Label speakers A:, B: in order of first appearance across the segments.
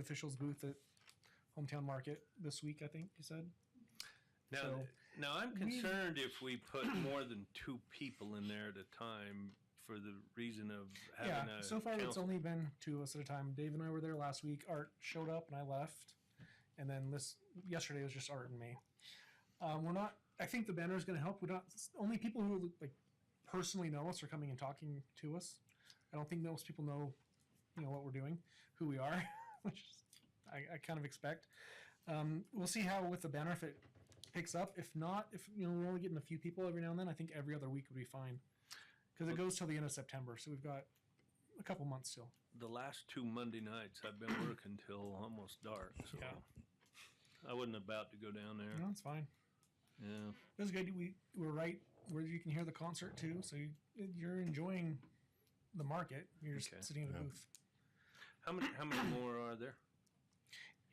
A: officials booth at Hometown Market this week, I think you said.
B: Now,
A: So-
B: now I'm concerned if we put more than two people in there at a time for the reason of having
A: yeah,
B: a.
A: so far it's
B: council-
A: only been two of us at a time. Dave and I were there last week. Art showed up and I left, and then this yesterday was just Art and me. Um, we're not. I think the banner is going to help. We're not only people who like personally know us are coming and talking to us. I don't think most people know, you know, what we're doing, who we are, which is, I, I kind of expect. Um, we'll see how with the banner if it picks up. If not, if you know we're only getting a few people every now and then, I think every other week would be fine. Because it goes till the end of September, so we've got a couple months still.
B: The last two Monday nights, I've been working till almost dark,
A: Yeah.
B: so. I wasn't about to go down
A: No,
B: there.
A: it's fine.
B: Yeah.
A: It was good. We we're right where you can hear the concert too, so you, you're enjoying the market. You're just
B: Okay.
A: sitting in a
C: Yeah.
A: booth
B: How many, how many more are there?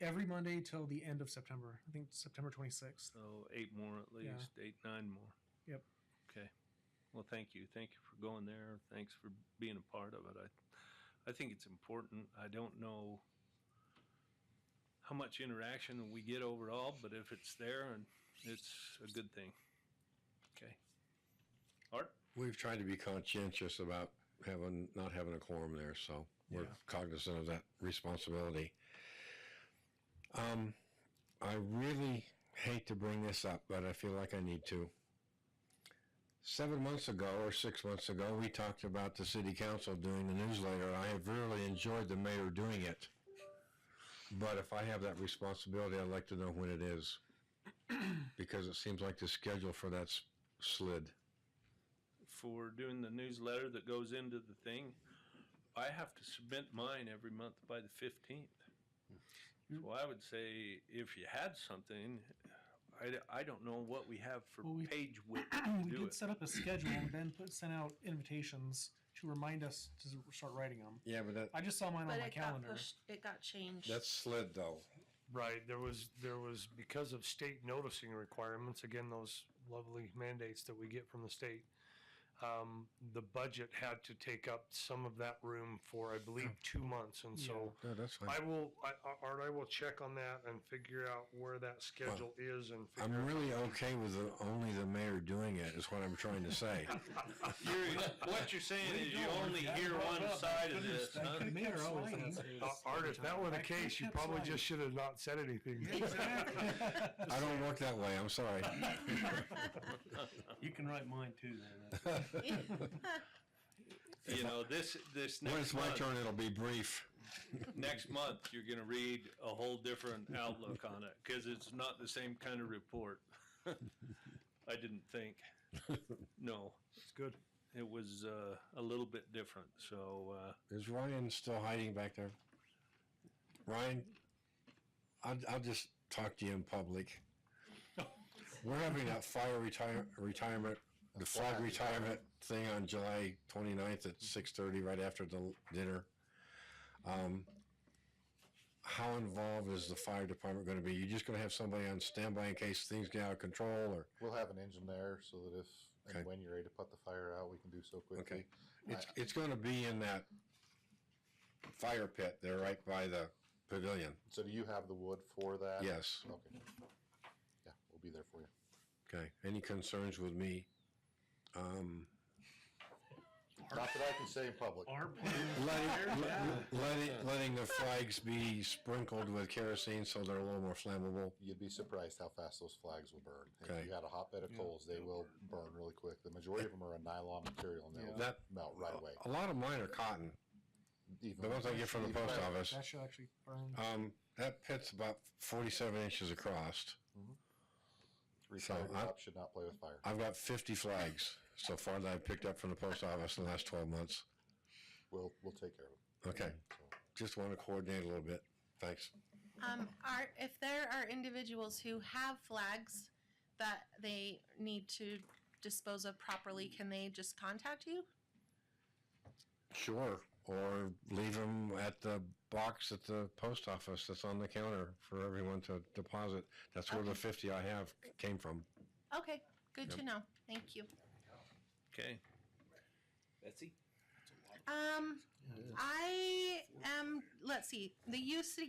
A: every Monday till the end of September. I think September 26th.
B: Oh, eight more at
A: Yeah.
B: least, eight, nine more.
A: Yep.
B: Okay. Well, thank you. Thank you for going there. Thanks for being a part of it. I, I think it's important. I don't know how much interaction we get overall, but if it's there, and it's a good thing. Okay. Art?
C: We've tried to be conscientious about having, not having a quorum there, so we're
A: Yeah.
C: cognizant of that responsibility. Um, I really hate to bring this up, but I feel like I need to. Seven months ago or six months ago, we talked about the city council doing the newsletter. I have really enjoyed the mayor doing it. But if I have that responsibility, I'd like to know when it is. Because it seems like the schedule for that's slid.
B: for doing the newsletter that goes into the thing. I have to submit mine every month by the 15th.
A: Hmm.
B: So I would say if you had something, I, d- I don't know what we have for
A: Well, we-
B: page width
A: We
B: to do
A: did
B: it.
A: set up a schedule and then put, sent out invitations to remind us to start writing them.
C: Yeah, but that,
A: I just saw mine
D: But
A: on my
D: it got
A: calendar.
D: pushed, it got changed.
C: That's slid though.
E: Right, there was, there was, because of state noticing requirements, again, those lovely mandates that we get from the state, um, the budget had to take up some of that room for, I believe, two months, and so
C: No, that's
E: I
C: fine.
E: will, I, I- Art, I will check on that and figure out where that schedule is and
C: I'm
E: figure.
C: really okay with the, only the mayor doing it is what I'm trying to say.
B: what you're saying is you
A: don't
B: only
A: have
B: hear
A: brought
B: one
A: up.
B: side of this.
A: The
B: huh?
A: mayor always
F: sliding.
A: has
E: Uh, Art, if that were the
A: I think
E: case, you
A: that's
E: probably
A: right.
E: just should have not said anything.
C: I don't work that way. I'm sorry.
F: You can write mine too, then.
B: You know, this, this
C: When
B: next
C: it's my
B: month,
C: turn, it'll be brief.
B: next month, you're going to read a whole different outlook on it because it's not the same kind of report. I didn't think. No.
E: It's good.
B: it was uh, a little bit different. So uh,
C: Is Ryan still hiding back there? Ryan, I'll, I'll just talk to you in public. We're having that fire retire, retirement, the flag retirement thing on July 29th at 6:30, right after the dinner. Um, how involved is the fire department going to be? You just going to have somebody on standby in case things get out of control, or
G: We'll have an engine there so that if
C: Okay.
G: and when you're ready to put the fire out, we can do so quickly.
C: okay? It's it's going to be in that fire pit there, right by the pavilion.
G: So do you have the wood for that?
C: Yes.
G: Okay. Yeah, we'll be there for you.
C: Okay. Any concerns with me? Um,
G: Not that I can say in public.
C: letting, let- letting, letting the flags be sprinkled with kerosene so they're a little more flammable.
G: You'd be surprised how fast those flags will burn.
C: Okay.
G: If you had a hotbed of coals, they will burn really quick. The majority of them are a nylon material and they'll
C: That-
G: melt right away.
C: A lot of mine are cotton.
G: Even
C: The ones I get from the
G: even
C: post
G: better.
C: office.
A: That should actually burn.
C: Um, that pit's about 47 inches across.
G: Retired
C: So I-
G: cops should not play with fire.
C: I've got 50 flags so far that I've picked up from the post office in the last 12 months.
G: We'll we'll take care of it.
C: Okay. Just want to coordinate a little bit. Thanks.
D: Um, are, if there are individuals who have flags that they need to dispose of properly, can they just contact you?
C: Sure. Or leave them at the box at the post office that's on the counter for everyone to deposit. That's where the 50 I have came from.
D: Okay, good to know. Thank you.
B: okay,
D: Um, I am, let's see, the youth city